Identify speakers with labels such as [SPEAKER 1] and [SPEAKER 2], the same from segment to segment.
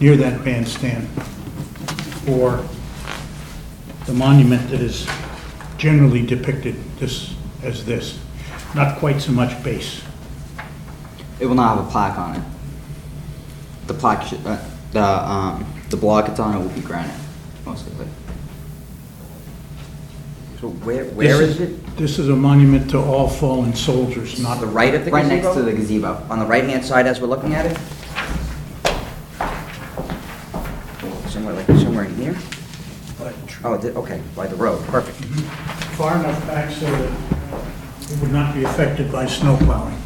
[SPEAKER 1] near that bandstand or the monument that is generally depicted this, as this. Not quite so much base.
[SPEAKER 2] It will not have a plaque on it. The plaque, should- uh, the, um, the block it's on it will be granite, most likely.
[SPEAKER 3] So where, where
[SPEAKER 1] This
[SPEAKER 3] is it?
[SPEAKER 1] This is a monument to all fallen soldiers,
[SPEAKER 3] On
[SPEAKER 1] not
[SPEAKER 3] the right of the
[SPEAKER 2] Right next to
[SPEAKER 3] gazebo?
[SPEAKER 2] the gazebo.
[SPEAKER 3] On the right-hand side as we're looking at it? Somewhere like, somewhere in here? Oh, the- okay, by the road, perfect.
[SPEAKER 1] Far enough back so that it would not be affected by snow plowing.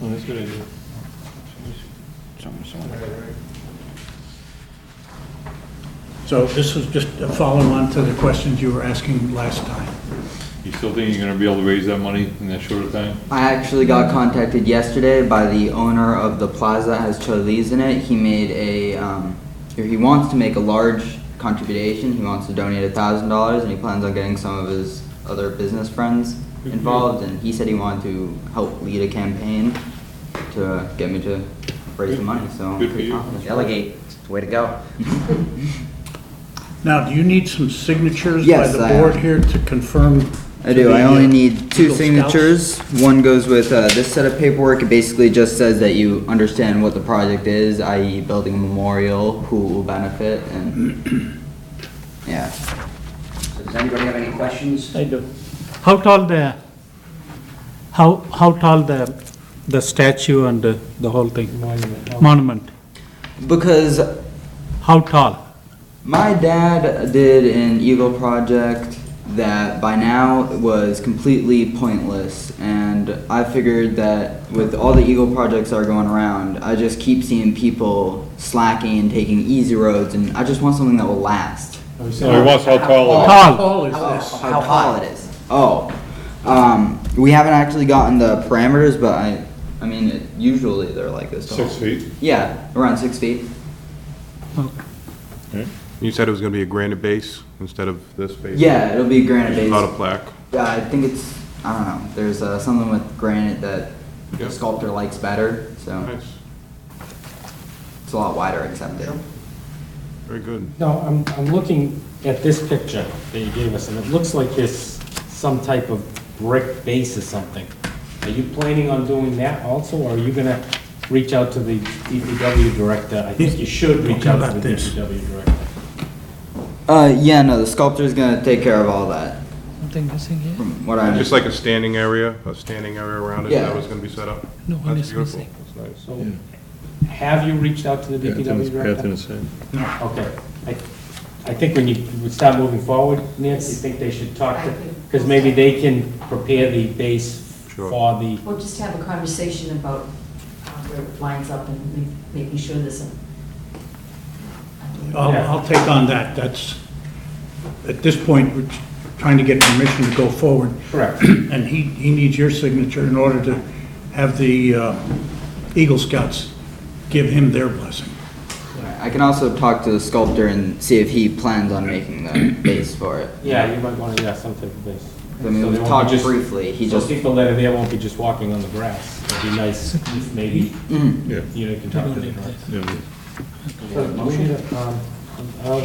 [SPEAKER 4] Oh, that's a good idea.
[SPEAKER 3] Somewhere, somewhere.
[SPEAKER 1] So this was just a follow-on to the questions you were asking last time.
[SPEAKER 4] You still think you're gonna be able to raise that money in that short of time?
[SPEAKER 2] I actually got contacted yesterday by the owner of the plaza that has Cholis in it. He made a, um, or he wants to make a large contribution. He wants to donate a thousand dollars and he plans on getting some of his other business friends
[SPEAKER 4] Good
[SPEAKER 2] involved. And he said he wanted to help lead a campaign to get me to raise the money, so. I'm
[SPEAKER 4] Good for
[SPEAKER 2] pretty
[SPEAKER 4] you.
[SPEAKER 2] confident.
[SPEAKER 3] Delegate, it's the way to go.
[SPEAKER 1] Now, do you need some signatures by
[SPEAKER 2] Yes,
[SPEAKER 1] the
[SPEAKER 2] I am.
[SPEAKER 1] board here to confirm?
[SPEAKER 2] I
[SPEAKER 1] to
[SPEAKER 2] do,
[SPEAKER 1] the,
[SPEAKER 2] I
[SPEAKER 1] uh,
[SPEAKER 2] only need two
[SPEAKER 1] Eagle Scouts?
[SPEAKER 2] signatures. One goes with uh, this set of paperwork, it basically just says that you understand what the project is, i.e. building a memorial, who will benefit, and, yeah.
[SPEAKER 3] So Does anybody have any questions?
[SPEAKER 5] I do. How tall the, how, how tall the, the statue and the the whole thing? Monument.
[SPEAKER 2] Because
[SPEAKER 5] How tall?
[SPEAKER 2] my dad did an Eagle project that by now was completely pointless, and I figured that with all the Eagle projects that are going around, I just keep seeing people slacking and taking easy roads, and I just want something that will last.
[SPEAKER 4] No, he wants how tall it is.
[SPEAKER 1] How
[SPEAKER 5] Tall.
[SPEAKER 1] tall is
[SPEAKER 2] Oh.
[SPEAKER 1] this?
[SPEAKER 2] how tall it is. Oh, um, we haven't actually gotten the parameters, but I, I mean, it- usually they're like this tall.
[SPEAKER 4] Six feet.
[SPEAKER 2] Yeah, around six feet.
[SPEAKER 6] You said it was going to be a granite base instead of this base?
[SPEAKER 2] Yeah, it'll be granite
[SPEAKER 6] It's
[SPEAKER 2] base.
[SPEAKER 6] Not a plaque?
[SPEAKER 2] Yeah, I think it's, I don't know, there's uh, something with granite that the
[SPEAKER 6] Yep.
[SPEAKER 2] sculptor likes better, so
[SPEAKER 6] Nice,
[SPEAKER 2] it's a lot wider accepted.
[SPEAKER 6] very good.
[SPEAKER 7] No, I'm, I'm looking at this picture that you gave us, and it looks like there's some type of brick base or something. Are you planning on doing that also, or are you gonna reach out to the DPW director? I think you should reach
[SPEAKER 1] Talking
[SPEAKER 7] out
[SPEAKER 1] about
[SPEAKER 7] to the
[SPEAKER 1] this.
[SPEAKER 7] DPW director.
[SPEAKER 2] Uh, yeah, no, the sculptor's gonna take care of all that,
[SPEAKER 8] Something missing here?
[SPEAKER 2] from what I
[SPEAKER 6] Just like a standing area, a standing area around it,
[SPEAKER 2] Yeah.
[SPEAKER 6] that was going to be set up?
[SPEAKER 8] No one
[SPEAKER 6] That's
[SPEAKER 8] is
[SPEAKER 6] beautiful.
[SPEAKER 8] missing.
[SPEAKER 6] That's nice.
[SPEAKER 7] So, have you reached out to the DPW director? Okay. I, I think when you would start moving forward, Nancy, you think they should talk to, because maybe they can prepare the base
[SPEAKER 6] Sure.
[SPEAKER 7] for the
[SPEAKER 9] We'll just have a conversation about uh, where it lines up and ma- making sure there's a...
[SPEAKER 1] I'll, I'll take on that, that's, at this point, we're trying to get permission to go forward.
[SPEAKER 7] Correct.
[SPEAKER 1] And he, he needs your signature in order to have the uh, Eagle Scouts give him their blessing.
[SPEAKER 2] I can also talk to the sculptor and see if he plans on making the base for it.
[SPEAKER 7] Yeah, you might want to, yeah, some type of base.
[SPEAKER 2] I mean,
[SPEAKER 7] So
[SPEAKER 2] we
[SPEAKER 7] they won't
[SPEAKER 2] talked
[SPEAKER 7] be just-
[SPEAKER 2] briefly, he just-
[SPEAKER 7] So people that are there won't be just walking on the grass. It'd be nice if maybe, you know, can talk to them. right? um,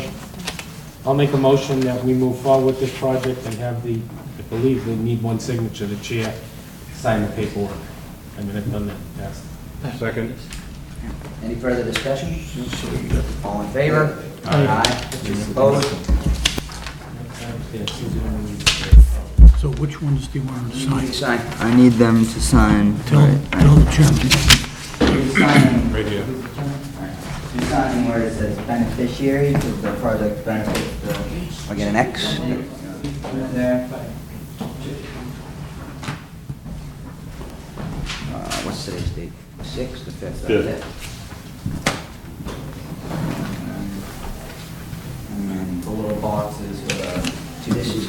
[SPEAKER 7] I'll make a motion that we move forward with this project and have the, I believe they need one signature, the chair, sign the paperwork. I mean, I've done that, yes.
[SPEAKER 6] Second?
[SPEAKER 3] Any further discussion? All in favor? Aye. Opposed?
[SPEAKER 1] So which ones do you want to sign?
[SPEAKER 3] Sign.
[SPEAKER 2] I need them to sign.
[SPEAKER 1] Tell,
[SPEAKER 2] right.
[SPEAKER 1] tell the chairman.
[SPEAKER 2] You're signing-
[SPEAKER 6] Right here.
[SPEAKER 2] You're signing where it says beneficiary, because the project benefits the.
[SPEAKER 3] I'll get uh, an X.
[SPEAKER 2] There.
[SPEAKER 3] Uh, What's today's date? Sixth, the fifth?
[SPEAKER 4] Fifth.
[SPEAKER 2] And then Um, the little boxes uh, with
[SPEAKER 3] So this is,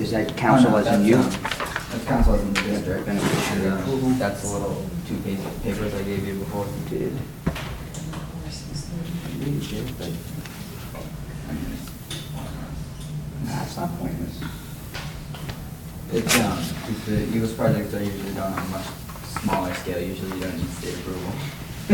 [SPEAKER 3] is that council as in you?
[SPEAKER 2] Oh, That's council as in the district. And, uh, That's the little two pages of papers I gave you before. Did.
[SPEAKER 3] That's not pointless.
[SPEAKER 2] It's, um, it's the Eagles projects are usually done on a much smaller scale, usually you don't need state approval.